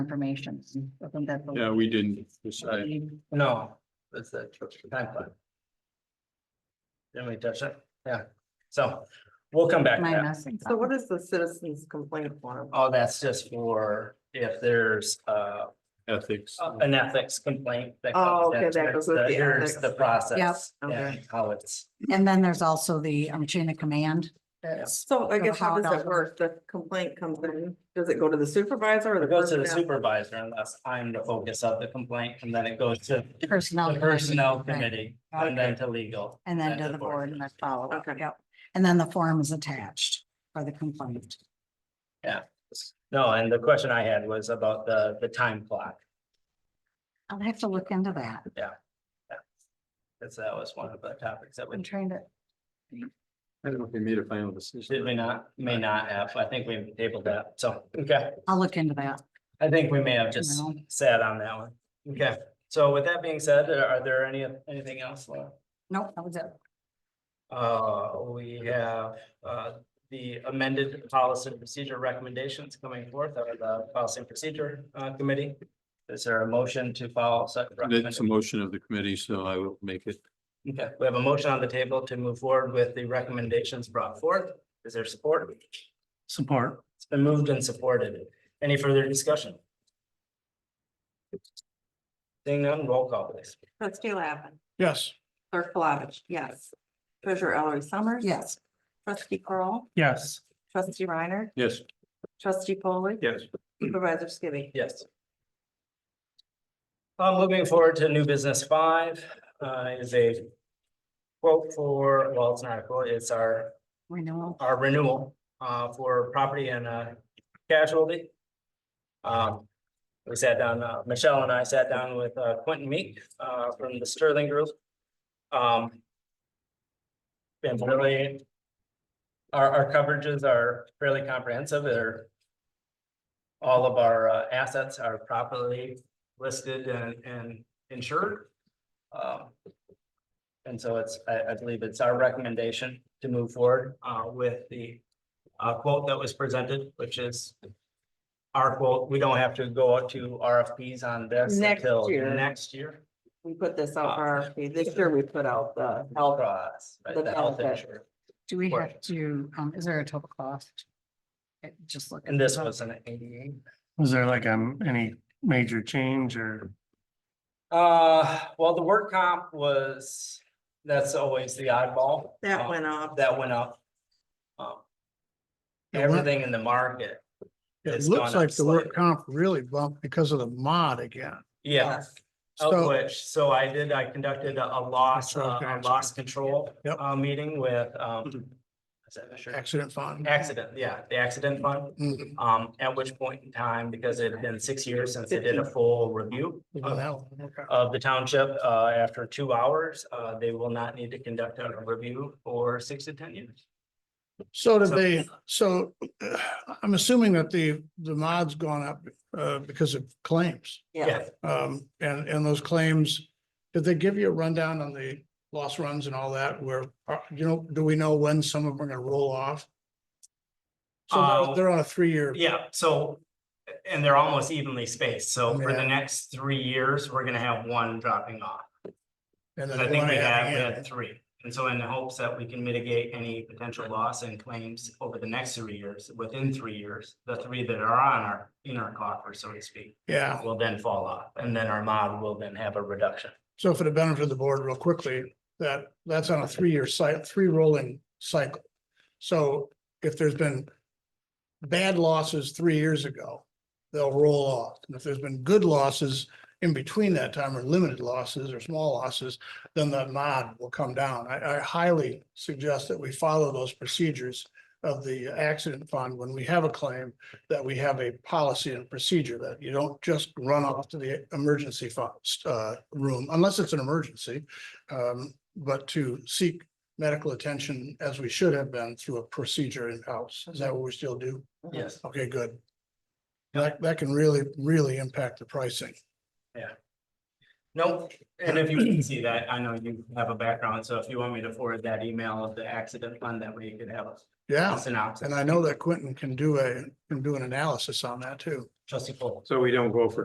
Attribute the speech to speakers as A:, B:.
A: information. I think that's the-
B: Yeah, we didn't decide.
C: No, that's the time plan. Didn't we touch it? Yeah, so we'll come back to
A: My
C: that.
A: message.
D: So what is the citizens complaint form?
C: Oh, that's just for if there's uh
B: Ethics.
C: an ethics complaint. that
D: Oh,
C: comes
D: okay,
C: into
D: that
C: it.
D: goes with
C: The-
D: the
C: Here's
D: ethics.
C: the process.
D: Yep.
C: and
D: Okay.
C: How it's,
A: And then there's also the um, chain of command. That's,
D: So I
A: So
D: guess
A: how
D: how does
A: does
D: it work? The complaint comes in, does it go to the supervisor or the?
C: it goes to the
D: personnel?
C: supervisor unless I'm the focus of the complaint and then it goes to
A: personnel.
C: the personnel
A: committee, right.
C: committee and then to legal.
A: And then to the board and the follow up.
D: Okay.
A: Yep. And then the form is attached for the complaint.
C: No, and the question I had was about the the time clock.
A: I'll have to look into that.
C: That's that was one of the topics that
A: I'm
C: we
A: trying to,
B: I don't know if we made a final
C: did
B: decision.
C: we not, may not have. I think we tabled that. So, okay.
A: I'll look into that.
C: I think we may have just
A: No.
C: sat on that one. Okay, so with that being said, are are there any, anything else? Laura?
A: Nope, that was it.
C: Uh, we have, uh, the amended policy and procedure recommendations coming forth out of the policy and procedure, uh, committee. Is there a motion to follow such?
B: That's a
C: recommendation?
B: motion of the committee, so I will make it.
C: Okay, we have a motion on the table to move forward with the recommendations brought forth. Is there support? Support. It's been moved and supported. Any further discussion? Seeing none, roll call please.
D: Trustee Lappin,
E: Yes.
D: clerk Flavich, yes. Treasurer Ellery Summers.
A: Yes.
D: Trustee Curl,
E: Yes.
D: trustee Reiner,
B: Yes.
D: trustee Polly.
B: Yes.
D: Supervisor Skibby.
C: Yes. Uh, moving forward to new business five, uh, is a quote for, well, it's not a quote, it's our,
A: Renewal.
C: our renewal, uh, for property and, uh, casualty. Um, we sat down, uh, Michelle and I sat down with, uh, Quentin Meek, uh, from the Sterling Group. Um. And really, our, our coverages are fairly comprehensive, they're all of our uh, assets are properly listed and, and insured. Um, And so it's, I, I believe it's our recommendation to move forward, uh, with the, uh, quote that was presented, which is our quote, we don't have to go out to RFPs on this
D: Next
C: until
D: year.
C: next year.
D: We put this out for RFP. This year we put out the health.
C: Across, right,
D: The
C: the health
D: benefit.
C: insurance.
A: Do we
C: Right.
A: have to, um, is there a total cost? It- Just look.
C: And this was an eighty-eight.
E: Was there like um any major change or?
C: Uh, well, the work comp was, that's always the oddball.
D: That
C: Um,
D: went up.
C: That went up. Um,
F: It went-
C: Everything in the market,
F: It
C: It's
F: looks
C: gone up
F: like the work
C: slightly.
F: comp really bumped because of the mod again.
C: yeah, of
F: So,
C: which, so I did, I conducted a a loss,
F: Control,
C: uh, a
F: control.
C: loss control.
F: Yep. Mm-hmm.
C: Uh, meeting with, um. is that Mr.
F: accident fund.
C: Accident, yeah, the accident fund,
F: Mm,
C: um, at which point in time, because it had been six years since they did a full review.
F: well,
C: of
F: that one, okay.
C: of the township, uh, after two hours, uh, they will not need to conduct a review for six to ten years.
F: So did
C: so-
F: they, so uh, I'm assuming that the, the mod's gone up uh, because of claims.
D: Yes.
F: Um, and, and those claims, did they give you a rundown on the loss runs and all that where, are- you know, do we know when some of them are gonna roll off? So
C: Uh,
F: they're- they're on a three-year,
C: Yeah, so, and they're almost evenly spaced, so for the
F: Yeah.
C: next three years, we're gonna have one dropping off.
F: and then
C: I think
F: one
C: we had, we
F: at
C: had three, and so in the hopes that we can mitigate any potential loss and claims over the next three years, within three years, the three that are on our, in our coffer, so to speak,
F: the end. Yeah,
C: will then fall off, and then our mod will then have a reduction.
F: so for the benefit of the board real quickly, that, that's on a three-year cycle, three rolling cycle. So if there's been bad losses three years ago, they'll roll off. And if there's been good losses in between that time or limited losses or small losses, then that mod will come down. I, I highly suggest that we follow those procedures of the accident fund when we have a claim, that we have a policy and procedure that you don't just run off to the emergency fund, uh, room, unless it's an emergency. Um, but to seek medical attention as we should have been through a procedure in-house. Is that what we still do?
C: Yes.
F: Okay, good. That, that can really, really impact the pricing.
C: Nope, and if you can see that, I know you have a background, so if you want me to forward that email of the accident fund, that way you could have
F: Yeah,
C: synopsis.
F: and I know that Quentin can do a, can do an analysis on that too.
C: Trustee Paul.
E: So we don't go for